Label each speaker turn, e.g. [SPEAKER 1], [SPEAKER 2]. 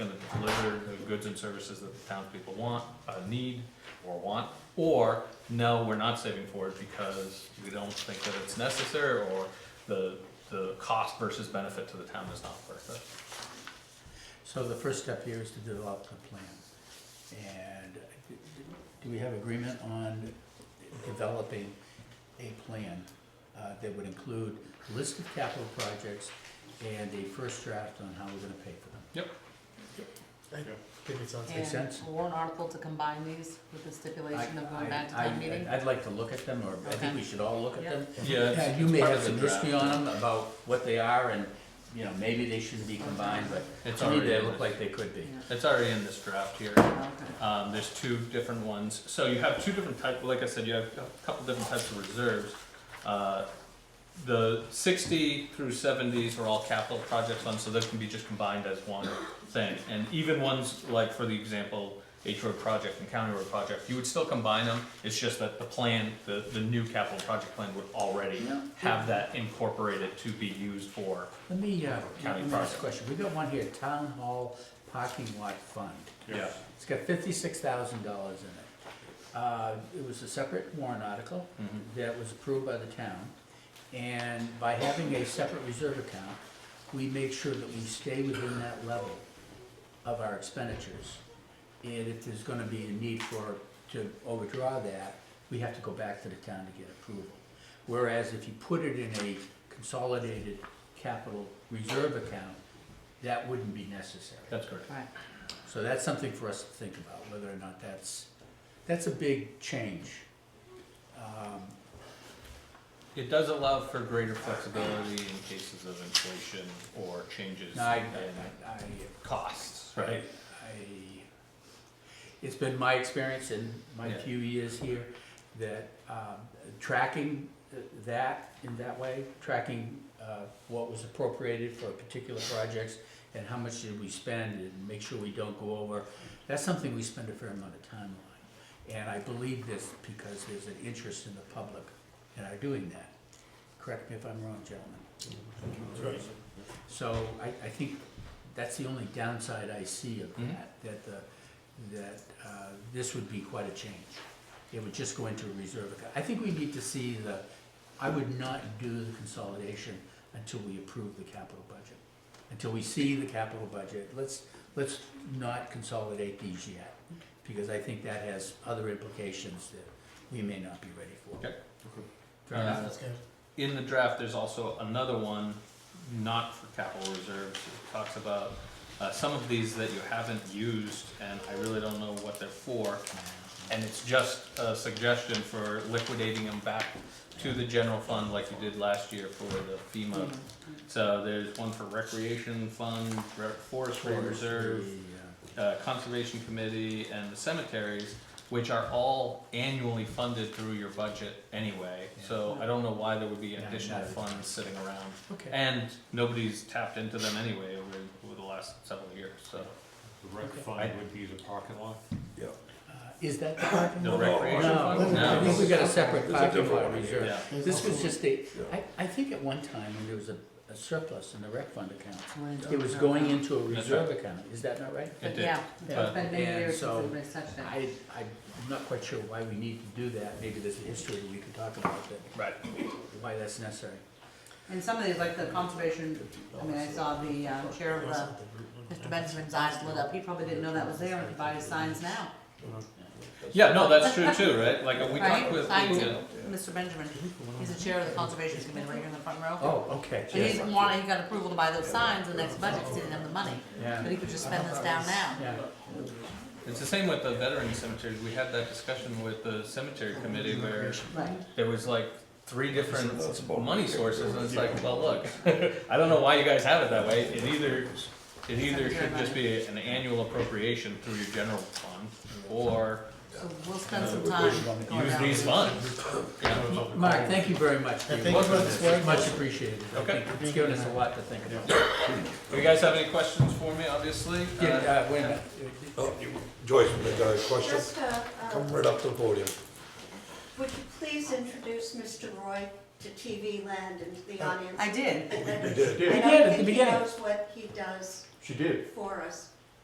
[SPEAKER 1] either the goods and services that the townspeople want, uh, need, or want, or, no, we're not saving for it because we don't think that it's necessary, or the, the cost versus benefit to the town is not worth it.
[SPEAKER 2] So the first step here is to develop the plan. And do we have agreement on developing a plan uh, that would include a list of capital projects and a first draft on how we're gonna pay for them?
[SPEAKER 1] Yep.
[SPEAKER 2] Think it sounds. Makes
[SPEAKER 3] And
[SPEAKER 2] sense?
[SPEAKER 3] a warrant article to combine these with the stipulation of going back to
[SPEAKER 2] I- I-
[SPEAKER 3] town meeting?
[SPEAKER 2] I'd like to look at them, or I think we
[SPEAKER 3] Okay.
[SPEAKER 2] should all look at them.
[SPEAKER 1] Yeah,
[SPEAKER 2] Yeah,
[SPEAKER 1] it's-
[SPEAKER 2] you
[SPEAKER 1] it's
[SPEAKER 2] may
[SPEAKER 1] part
[SPEAKER 2] have
[SPEAKER 1] of the
[SPEAKER 2] some history
[SPEAKER 1] draft.
[SPEAKER 2] on them about what they are, and, you know, maybe they shouldn't be combined, but
[SPEAKER 1] It's
[SPEAKER 2] to me,
[SPEAKER 1] already
[SPEAKER 2] they
[SPEAKER 1] in
[SPEAKER 2] look
[SPEAKER 1] it.
[SPEAKER 2] like they could be.
[SPEAKER 3] Yeah.
[SPEAKER 1] It's already in this draft here.
[SPEAKER 3] Okay.
[SPEAKER 1] Um, there's two different ones. So you have two different types, like I said, you have a couple different types of reserves. Uh, The sixty through seventies are all capital project funds, so those can be just combined as one thing. And even ones like, for the example, H Road project and County Road project, you would still combine them. It's just that the plan, the, the new capital project plan would already
[SPEAKER 2] Yeah.
[SPEAKER 1] have that incorporated to be used for.
[SPEAKER 2] Let me, uh, let
[SPEAKER 1] County
[SPEAKER 2] me ask a
[SPEAKER 1] project.
[SPEAKER 2] question, we got one here, Town Hall Parking Lot Fund.
[SPEAKER 1] Yeah.
[SPEAKER 2] It's got fifty-six thousand dollars in it. Uh, it was a separate warrant article that was approved by the town. And by having a separate reserve account, we make sure that we stay within that level of our expenditures. And if there's gonna be a need for, to overdraw that, we have to go back to the town to get approval. Whereas if you put it in a consolidated capital reserve account, that wouldn't be necessary.
[SPEAKER 1] That's correct.
[SPEAKER 3] Right,
[SPEAKER 2] So that's something for us to think about, whether or not that's, that's a big change. Um,
[SPEAKER 1] It does allow for greater flexibility in cases of inflation or changes
[SPEAKER 2] I, I,
[SPEAKER 1] in
[SPEAKER 2] I,
[SPEAKER 1] costs,
[SPEAKER 2] I,
[SPEAKER 1] right?
[SPEAKER 2] I- it's been my experience in my
[SPEAKER 1] Yeah.
[SPEAKER 2] few years here that, um, tracking uh, that in that way, tracking, uh, what was appropriated for particular projects and how much did we spend and make sure we don't go over, that's something we spend a fair amount of time on. And I believe this because there's an interest in the public in our doing that. Correct me if I'm wrong, gentlemen. So I, I think that's the only downside I see of
[SPEAKER 1] Mhm.
[SPEAKER 2] that, that the, that, uh, this would be quite a change. It would just go into a reserve account. I think we need to see the, I would not do the consolidation until we approve the capital budget. Until we see the capital budget, let's, let's not consolidate these yet, because I think that has other implications that we may not be ready for.
[SPEAKER 1] Okay.
[SPEAKER 2] Fair enough?
[SPEAKER 1] Uh, In the draft, there's also another one, not for capital reserves, it talks about uh, some of these that you haven't used, and I really don't know what they're for. And it's just a suggestion for liquidating them back to the general fund like you did last year for the FEMA. So there's one for recreation fund, re- forestry reserve, uh, Conservation Committee and the cemeteries, which are all annually funded through your budget anyway. So I don't know why there would be
[SPEAKER 2] Yeah,
[SPEAKER 1] additional
[SPEAKER 2] that is-
[SPEAKER 1] funds sitting around.
[SPEAKER 2] Okay,
[SPEAKER 1] And nobody's tapped into them anyway over, over the last several years, so.
[SPEAKER 4] The rec fund would be the parking lot?
[SPEAKER 2] Uh, is that the parking
[SPEAKER 1] No
[SPEAKER 2] lot?
[SPEAKER 1] recreation
[SPEAKER 2] No,
[SPEAKER 1] fund?
[SPEAKER 2] I think we got a separate
[SPEAKER 5] There's a
[SPEAKER 2] parking
[SPEAKER 5] different
[SPEAKER 2] lot
[SPEAKER 5] one here.
[SPEAKER 2] reserve.
[SPEAKER 1] Yeah,
[SPEAKER 2] This was just a,
[SPEAKER 5] Yeah.
[SPEAKER 2] I, I think at one time when there was a a surplus in the rec fund account,
[SPEAKER 3] so we're into
[SPEAKER 2] it was
[SPEAKER 3] reserve.
[SPEAKER 2] going into a
[SPEAKER 1] That's
[SPEAKER 2] reserve account, is that not right?
[SPEAKER 1] it
[SPEAKER 3] But
[SPEAKER 1] did.
[SPEAKER 3] yeah,
[SPEAKER 2] Yeah.
[SPEAKER 3] it's been many
[SPEAKER 2] And
[SPEAKER 3] years since
[SPEAKER 2] so
[SPEAKER 3] anybody's touched it.
[SPEAKER 2] I, I'm not quite sure why we need to do that, maybe there's a history we could talk about that,
[SPEAKER 1] Right.
[SPEAKER 2] why that's necessary.
[SPEAKER 3] And some of these, like the conservation, I mean, I saw the uh, chair of the, Mr. Benjamin's eyes lit up, he probably didn't know that was there, and he buys signs now,
[SPEAKER 1] Yeah, no, that's true too, right? Like, we talked
[SPEAKER 3] right?
[SPEAKER 1] with, uh,
[SPEAKER 3] Signs,
[SPEAKER 1] yeah.
[SPEAKER 3] Mr. Benjamin, he's the chair of the conservation committee right here in the front row.
[SPEAKER 2] Oh, okay,
[SPEAKER 3] And he's wanting, he got approval to buy those signs, the next budget, 'cause he didn't have the money,
[SPEAKER 2] Yeah.
[SPEAKER 3] but he could just spend this down now.
[SPEAKER 2] yeah,
[SPEAKER 1] It's the same with the veteran cemeteries. We had that discussion with the cemetery
[SPEAKER 2] Oh,
[SPEAKER 1] committee where
[SPEAKER 3] Right.
[SPEAKER 1] there was like three different
[SPEAKER 5] That's about-
[SPEAKER 1] money sources, and it's like, well, look, I don't know why you guys have it that way, it either, it either should just be an annual appropriation through your general fund, or
[SPEAKER 3] So we'll spend some time going
[SPEAKER 1] use
[SPEAKER 3] down.
[SPEAKER 1] these funds. Yeah.
[SPEAKER 2] Mark, thank you very much for your
[SPEAKER 1] Thank
[SPEAKER 2] work
[SPEAKER 1] you.
[SPEAKER 2] on this, It's much appreciated. I
[SPEAKER 1] Okay.
[SPEAKER 2] think It's given us a lot to think about.
[SPEAKER 1] Do you guys have any questions for me, obviously? Uh,
[SPEAKER 2] Yeah, uh, wait a minute.
[SPEAKER 5] Oh, you- Joyce, you got a question?
[SPEAKER 6] Just, uh, uh,
[SPEAKER 5] Come right up to the podium.
[SPEAKER 6] would you please introduce Mr. Roy to TV Land and to the audience?
[SPEAKER 3] I did.
[SPEAKER 5] You
[SPEAKER 6] I
[SPEAKER 2] did
[SPEAKER 5] did.
[SPEAKER 6] I
[SPEAKER 2] at the
[SPEAKER 6] don't think he
[SPEAKER 2] beginning.
[SPEAKER 6] knows what he does
[SPEAKER 4] She did.
[SPEAKER 6] for us.